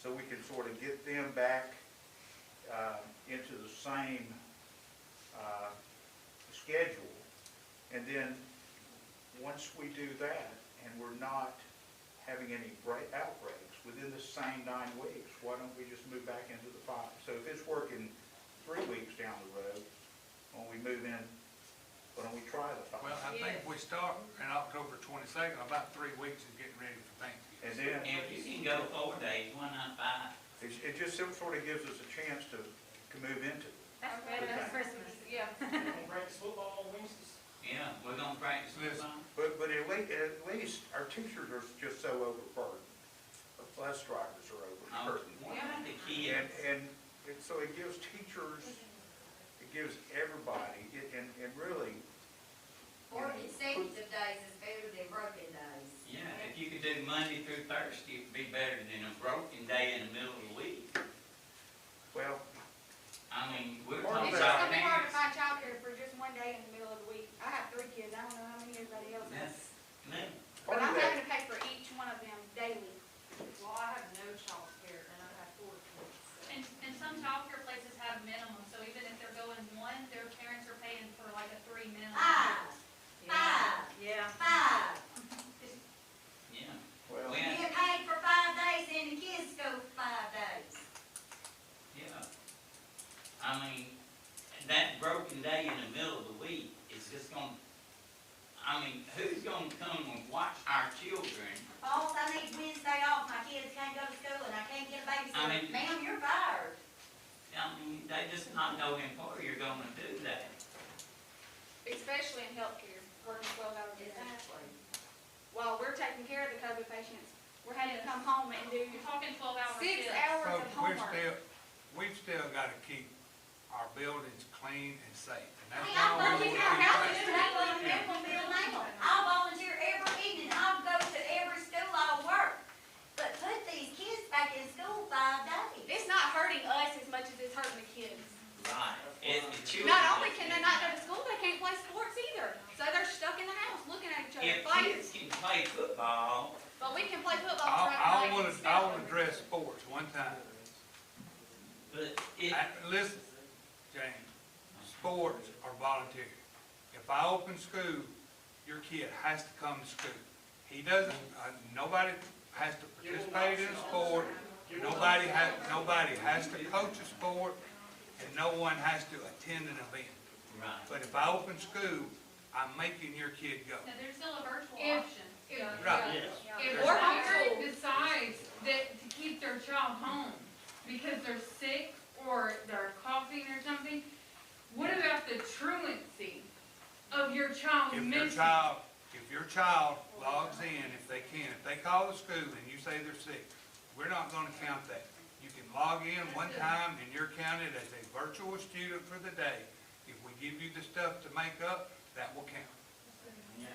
so we can sort of get them back uh, into the same uh, schedule. And then, once we do that, and we're not having any break- outbreaks within the same nine weeks, why don't we just move back into the five? So if it's working three weeks down the road, when we move in, why don't we try the Well, five? I think we start in October twenty-second, about three weeks is getting ready for And Thanksgiving. then, If you can go four days, why not five? it it just sort of gives us a chance to, to move into it. That's better than Christmas. Yeah. Breaks football Wednesdays. Yeah, we're gonna practice this on. But, but at least, at least our teachers are just so overburdened. The bus drivers are Oh, overburdened. Why not the And, kids? and, and so it gives teachers, it gives everybody, it- and, and really, Or consecutive days is better than broken days. Yeah, if you could do Monday through Thursday, it'd be better than a broken day in the middle of the week. well, I mean, we're Or talking It's just gonna about be hard to parents. find childcare for just one day in the middle of the week. I have three kids, I don't know how many everybody else has. No, part But of I'm that, having to pay for each one of them daily. Well, I have no childcare and I have four kids. so- And, and some childcare places have minimum, so even if they're going one, their parents are paying for like a three minimum. Ah. Five, Yeah. Yeah. five. yeah. well, When, You get paid for five days and the kids go for five days. yeah. I mean, that broken day in the middle of the week is just gonna, I mean, who's gonna come and watch our children? Boss, I need Wednesday off, my kids can't go to school and I can't get a I babysitter. mean- Ma'am, you're fired. I mean, they just not know employer you're gonna do that. especially in healthcare, working twelve hour days. Exactly. While we're taking care of the COVID patients, we're having to come home and do You're talking twelve hour six shifts. hours But of we're homework. still, we've still gotta keep our buildings clean and safe. And that's Hey, why I we volunteer, want I to help keep you, I volunteer for Bill Nagle. I volunteer every evening, I go to every school I work. But put these kids back in school five days. It's not hurting us as much as it's hurting the kids. Right, it's the children. Not only can they that's- not go to school, they can't play sports either. So they're stuck in the house looking at each other, If fighting. kids can play football, But we can play I, football. I throughout the wanna, night. I wanna address sports one time. but it, I- Listen, James, sports are voluntary. If I open school, your kid has to come to school. He doesn't, uh, nobody has to participate in a sport, nobody has, nobody has to coach a sport, and no one has to attend an event. right, But if I open school, I'm making your kid go. Now, there's still a virtual If- option. if- Yeah. Right. Yeah. If There's a not- parent decides that to keep their child home because they're sick or they're coughing or something, what about the truancy of your Oh, child If your missing? child, if your child logs in, if they can, if they call the school and you say they're sick, we're not gonna count that. You can log in one time and you're counted as a virtual student for the day. If we give you the stuff to make up, that will count. yeah.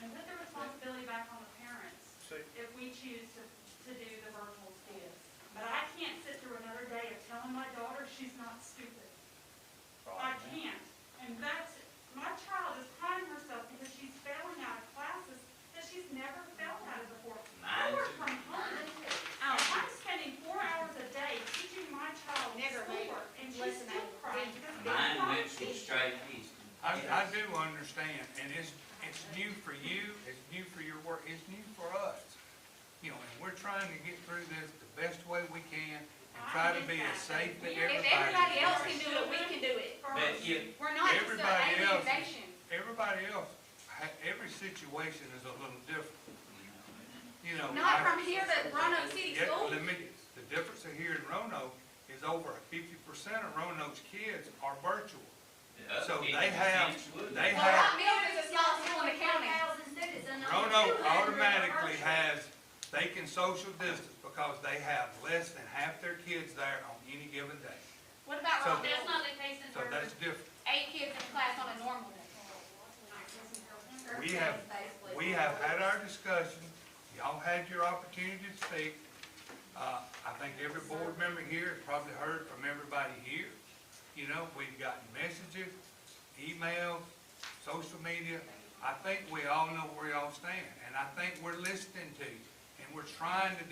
And put the responsibility back on the parents so, if we choose to, to do the virtual kids. But I can't sit through another day of telling my daughter she's not stupid. I can't. And that's, my child is crying herself because she's failing out of classes that she's never failed out of before. I Mine work too. from home. And I'm spending four hours a day teaching my child Never made schoolwork and she's listen, still I crying didn't- because they Mine want went from straight east. I, I do understand, and it's, it's new for you, it's new for your work, it's new for us. You know, and we're trying to get through this the best way we can and try to be as safe to everybody. If everybody else can do it, we can do it. But first. if, We're not just an Everybody else- nation. Everybody else, ha- every situation is a little different, you know. like- Not from here, but Roanoke City Yeah, School. let me- the difference of here in Roanoke is over fifty percent of Roanoke's kids are virtual. So they have- They Well, have- Rock Mills is a small school in the county. 1,000 students and only Roanoke 200 are automatically virtual. has, they can social distance because they have less than half their kids there on any given day. What about So- Rock That's Mills? not the case in So that's Durham. different. Eight kids in class on a normal day. We have, we have had our discussion, y'all had your opportunity to speak. Uh, I think every board member here has probably heard from everybody here. You know, we've gotten messages, emails, social media. I think we all know where y'all stand, and I think we're listening to you, and we're trying to